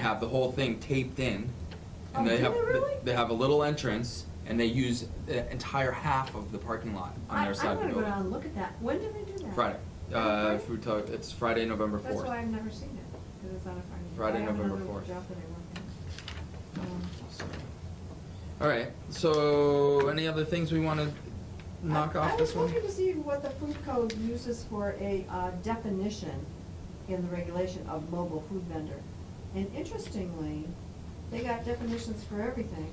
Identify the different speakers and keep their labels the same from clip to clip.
Speaker 1: have the whole thing taped in,
Speaker 2: Oh,
Speaker 1: and they
Speaker 2: do
Speaker 1: have
Speaker 2: they really?
Speaker 1: they have a little entrance, and they use the entire half of the parking lot on
Speaker 2: I,
Speaker 1: their
Speaker 2: I
Speaker 1: side of the
Speaker 2: wanna go
Speaker 1: building.
Speaker 2: down and look at that. When did they do that?
Speaker 1: Friday, uh, food truck. It's Friday, November
Speaker 2: That's
Speaker 1: fourth.
Speaker 2: why I've never seen it, because it's on a Friday.
Speaker 1: Friday,
Speaker 2: I have
Speaker 1: November
Speaker 2: another
Speaker 1: 4th.
Speaker 2: job that I work in. Um,
Speaker 1: All right. So, any other things we want to knock
Speaker 2: I-
Speaker 1: off this one?
Speaker 2: I was looking to see what the food code uses for a uh, definition in the regulation of mobile food vendor. And interestingly, they got definitions for everything,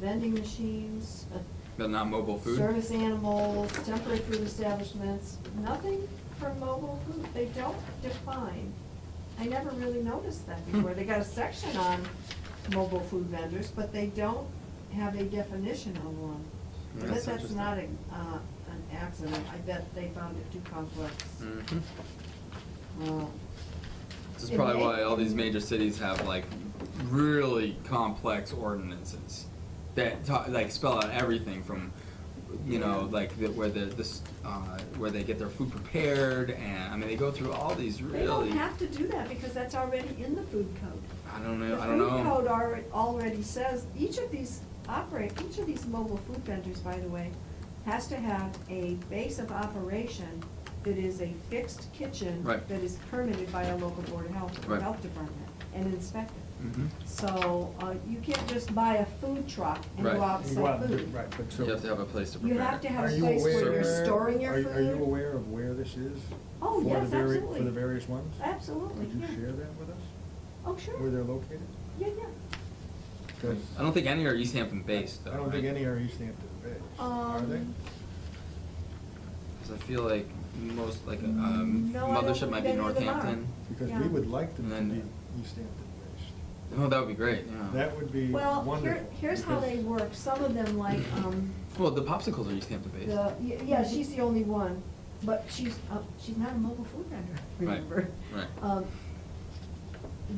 Speaker 2: vending machines, uh,
Speaker 1: But not mobile food.
Speaker 2: service animals, temporary food establishments, nothing for mobile food. They don't define. I never really noticed that
Speaker 1: Hmm.
Speaker 2: before. They got a section on mobile food vendors, but they don't have a definition of one. I bet
Speaker 1: That's
Speaker 2: that's
Speaker 1: interesting.
Speaker 2: not a, uh, an accident. I bet they found it too complex.
Speaker 1: Mhm.
Speaker 2: Well,
Speaker 1: This is
Speaker 2: It
Speaker 1: probably
Speaker 2: may-
Speaker 1: why all these major cities have like really complex ordinances that ta- like spell out everything from, you know,
Speaker 2: Yeah.
Speaker 1: like the, where the this uh, where they get their food prepared and I mean they go through all these
Speaker 2: They don't
Speaker 1: really.
Speaker 2: have to do that because that's already in the food code.
Speaker 1: I don't know.
Speaker 2: The
Speaker 1: I don't
Speaker 2: food code
Speaker 1: know.
Speaker 2: alre- already says, each of these operate, each of these mobile food vendors, by the way, has to have a base of operation that is a fixed kitchen.
Speaker 1: Right.
Speaker 2: That is permitted by a local board of health, or
Speaker 1: Right.
Speaker 2: health department, and inspected.
Speaker 1: Mhm.
Speaker 2: So, uh, you can't just buy a food truck and
Speaker 1: Right.
Speaker 2: go out and
Speaker 3: You
Speaker 2: sell
Speaker 3: want to-
Speaker 2: food.
Speaker 3: Right, but so.
Speaker 1: You have to have a place to
Speaker 2: You
Speaker 1: prepare.
Speaker 2: have
Speaker 1: it.
Speaker 2: to have
Speaker 3: Are
Speaker 2: a
Speaker 3: you
Speaker 2: place where
Speaker 3: aware-
Speaker 2: you're storing your
Speaker 3: are-
Speaker 2: food.
Speaker 3: Are you aware of where this is?
Speaker 2: Oh,
Speaker 3: For the
Speaker 2: yes,
Speaker 3: vari- For
Speaker 2: absolutely.
Speaker 3: the various ones?
Speaker 2: Absolutely,
Speaker 3: Would you
Speaker 2: yeah.
Speaker 3: share that with us,
Speaker 2: Oh, sure.
Speaker 3: where they're located?
Speaker 2: Yeah, yeah.
Speaker 3: 'Cause
Speaker 1: I don't think any are East Hampton based though.
Speaker 3: I don't think
Speaker 1: right?
Speaker 3: any are East Hampton based, are they?
Speaker 2: Um,
Speaker 1: 'Cause I feel like most like um,
Speaker 2: Mm, No, I don't
Speaker 1: mothership
Speaker 2: think
Speaker 1: might be
Speaker 2: any of them are.
Speaker 1: Northampton.
Speaker 3: Because
Speaker 2: yeah.
Speaker 3: we would like them to
Speaker 1: And
Speaker 3: be
Speaker 1: then-
Speaker 3: East Hampton based.
Speaker 1: Oh, that would be great. Yeah.
Speaker 3: That would be wonderful.
Speaker 2: Well, here, here's how they
Speaker 3: because-
Speaker 2: work. Some of them like, um,
Speaker 1: Well, the popsicles are East Hampton based.
Speaker 2: the, y- yeah, she's the only one, but she's, uh, she's not a mobile food vendor,
Speaker 1: Right,
Speaker 2: remember?
Speaker 1: right.
Speaker 2: Um,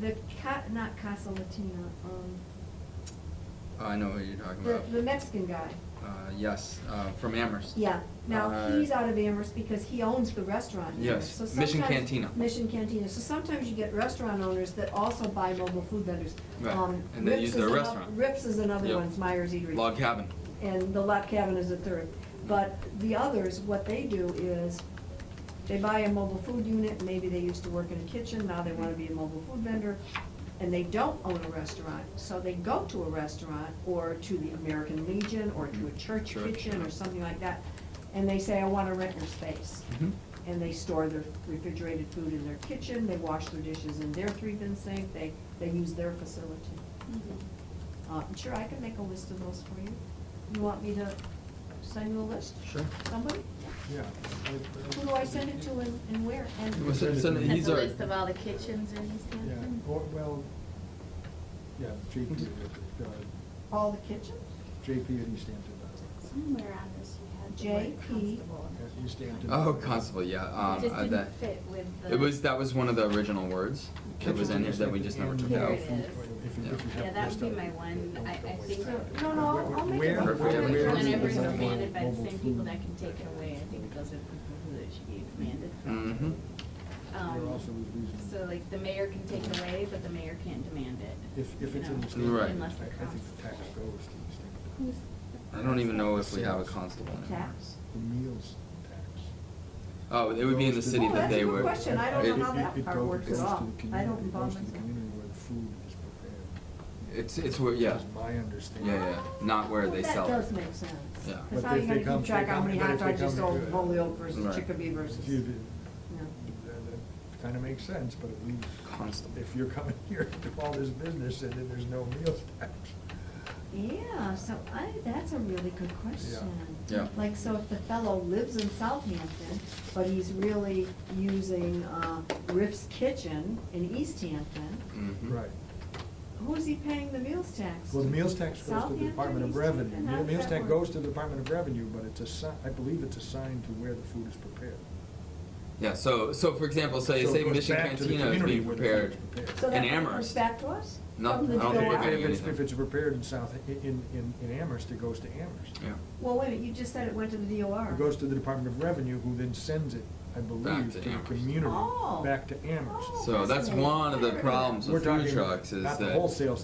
Speaker 2: the ca, not Casa Latina, um,
Speaker 1: Oh, I know what you're talking
Speaker 2: the,
Speaker 1: about.
Speaker 2: the Mexican guy.
Speaker 1: Uh, yes, uh, from Amherst.
Speaker 2: Yeah, now,
Speaker 1: Uh,
Speaker 2: he's out of Amherst because he owns the restaurant. in Amherst.
Speaker 1: Yes,
Speaker 2: So
Speaker 1: Mission
Speaker 2: sometimes-
Speaker 1: Cantina.
Speaker 2: Mission Cantina, so sometimes you get restaurant owners that also buy mobile food vendors.
Speaker 1: Right,
Speaker 2: Um,
Speaker 1: and they
Speaker 2: Rips
Speaker 1: use
Speaker 2: is
Speaker 1: their
Speaker 2: ano-
Speaker 1: restaurant.
Speaker 2: Rips is another
Speaker 1: Yep.
Speaker 2: one, it's Myers Eatery.
Speaker 1: Log cabin.
Speaker 2: and the lot cabin is a third. But the others, what they do is, they buy a mobile food unit, maybe they used to work in a kitchen, now they wanna be a mobile food vendor, and they don't own a restaurant, so they go to a restaurant, or to the American Legion, or to a church
Speaker 1: Church,
Speaker 2: kitchen,
Speaker 1: yeah.
Speaker 2: or something like that, and they say, I wanna rent your space.
Speaker 1: Mhm.
Speaker 2: And they store their refrigerated food in their kitchen, they wash their dishes in their three-bin sink, they, they use their facility.
Speaker 4: Mm-hmm.
Speaker 2: Uh, sure, I can make a list of those for you. You want me to send you a list?
Speaker 1: Sure.
Speaker 2: Somebody?
Speaker 3: Yeah.
Speaker 2: Who do I send it to and, and where? And
Speaker 1: Well, so- so
Speaker 3: That's
Speaker 1: these
Speaker 4: Has
Speaker 1: are-
Speaker 4: a list of all the kitchens in East
Speaker 3: Yeah,
Speaker 4: Hampton?
Speaker 3: or, well, yeah, JP,
Speaker 1: Mhm.
Speaker 3: at, uh,
Speaker 2: all the kitchens?
Speaker 3: JP at East Hampton does it.
Speaker 4: Somewhere on this you had the word
Speaker 2: JP.
Speaker 4: constable.
Speaker 3: At East Hampton.
Speaker 1: Oh, constable. Yeah. Um,
Speaker 4: It just
Speaker 1: uh,
Speaker 4: didn't
Speaker 1: that-
Speaker 4: fit with the-
Speaker 1: It was that was one of the original words that was in here that we just never took
Speaker 4: Here
Speaker 1: out.
Speaker 4: it is.
Speaker 3: If you- if you have
Speaker 4: Yeah,
Speaker 3: a
Speaker 4: that
Speaker 3: list
Speaker 4: would
Speaker 3: of
Speaker 4: be
Speaker 3: it,
Speaker 4: my one.
Speaker 3: don't-
Speaker 4: I-
Speaker 3: don't
Speaker 4: I
Speaker 3: waste
Speaker 4: think-
Speaker 3: time.
Speaker 2: No, no, I'll- I'll make
Speaker 3: Where-
Speaker 2: it.
Speaker 3: where-
Speaker 1: Perfect.
Speaker 3: where is
Speaker 4: Whenever it's
Speaker 3: the
Speaker 4: commanded by the
Speaker 3: mobile
Speaker 4: same people
Speaker 3: food?
Speaker 4: that can take it away, I think those are the people who it should be commanded
Speaker 1: Mhm.
Speaker 3: Mm-hmm.
Speaker 4: from. Um,
Speaker 3: There also was reason-
Speaker 4: So like the mayor can take it away, but the mayor can't demand it.
Speaker 3: If, if
Speaker 4: you
Speaker 3: it's in
Speaker 4: know,
Speaker 3: the state.
Speaker 1: Right.
Speaker 4: Unless
Speaker 3: I I
Speaker 4: they're
Speaker 3: think
Speaker 4: constable.
Speaker 3: the tax goes to the state.
Speaker 1: I don't even know if we have a constable. in here.
Speaker 2: Tax?
Speaker 3: The meals tax.
Speaker 1: Oh, it would be in the city
Speaker 2: Oh,
Speaker 1: that
Speaker 2: that's a
Speaker 1: they
Speaker 2: good
Speaker 1: were.
Speaker 2: question. I don't
Speaker 1: it-
Speaker 2: know how
Speaker 3: It-
Speaker 2: that
Speaker 3: it
Speaker 2: part
Speaker 3: go-
Speaker 2: works
Speaker 3: goes
Speaker 2: at
Speaker 3: to
Speaker 2: all.
Speaker 3: the community-
Speaker 2: I don't involve
Speaker 3: It goes to the
Speaker 2: myself.
Speaker 3: community where the food is prepared.
Speaker 1: It's it's where yeah.
Speaker 3: That's my understanding.
Speaker 1: Yeah, yeah. Not where they sell.
Speaker 2: That
Speaker 1: it.
Speaker 2: does make sense.
Speaker 1: Yeah.
Speaker 2: Cause
Speaker 3: But
Speaker 2: how are you
Speaker 3: if they
Speaker 2: gonna
Speaker 3: come-
Speaker 2: keep track how
Speaker 3: they
Speaker 2: many
Speaker 3: come-
Speaker 2: hot
Speaker 3: but if
Speaker 2: dogs
Speaker 3: they
Speaker 2: you
Speaker 3: come
Speaker 2: sold
Speaker 3: to do it-
Speaker 2: Holyoke versus
Speaker 1: Right.
Speaker 2: Chicopee versus?
Speaker 3: If you did,
Speaker 2: Yeah.
Speaker 3: that kind of makes sense, but it leaves.
Speaker 1: Constable.
Speaker 3: If you're coming here to do all this business and then there's no meals tax.
Speaker 2: Yeah, so I, that's a really good question.
Speaker 1: Yeah.
Speaker 2: Like, so if the fellow lives in Southampton, but he's really using, uh, Riff's Kitchen in East Hampton,
Speaker 1: Mhm.
Speaker 3: Right.
Speaker 2: who's he paying the meals tax to?
Speaker 3: Well, the meals tax goes to the
Speaker 2: Southampton,
Speaker 3: Department of
Speaker 2: East
Speaker 3: Revenue.
Speaker 2: Hampton, how
Speaker 3: The
Speaker 2: does
Speaker 3: meals
Speaker 2: that
Speaker 3: tax
Speaker 2: work?
Speaker 3: goes to the Department of Revenue, but it's assi, I believe it's assigned to where the food is prepared.
Speaker 1: Yeah. So so for example, so you
Speaker 3: So it
Speaker 1: say
Speaker 3: goes
Speaker 1: Mission
Speaker 3: back to the
Speaker 1: Cantina is
Speaker 3: community
Speaker 1: being
Speaker 3: where the food
Speaker 1: prepared
Speaker 3: is prepared.
Speaker 2: So
Speaker 1: in
Speaker 2: that comes
Speaker 1: Amherst.
Speaker 2: back to us?
Speaker 1: No,
Speaker 2: From the
Speaker 1: I don't think we're
Speaker 2: July?
Speaker 1: getting
Speaker 3: If it's,
Speaker 1: anything.
Speaker 3: if it's prepared in South, in, in, in Amherst, it goes to Amherst.
Speaker 1: Yeah.
Speaker 2: Well, wait a minute, you just said it went to the DOR.
Speaker 3: It goes to the Department of Revenue, who then sends it I
Speaker 1: Back
Speaker 3: believe,
Speaker 1: to
Speaker 3: to the
Speaker 1: Amherst.
Speaker 3: community,
Speaker 2: Oh.
Speaker 3: back to Amherst.
Speaker 2: Oh,
Speaker 1: So that's one of the
Speaker 2: fascinating.
Speaker 1: problems
Speaker 3: We're
Speaker 1: with food
Speaker 3: talking
Speaker 1: trucks is
Speaker 3: Not the
Speaker 1: that-
Speaker 3: wholesale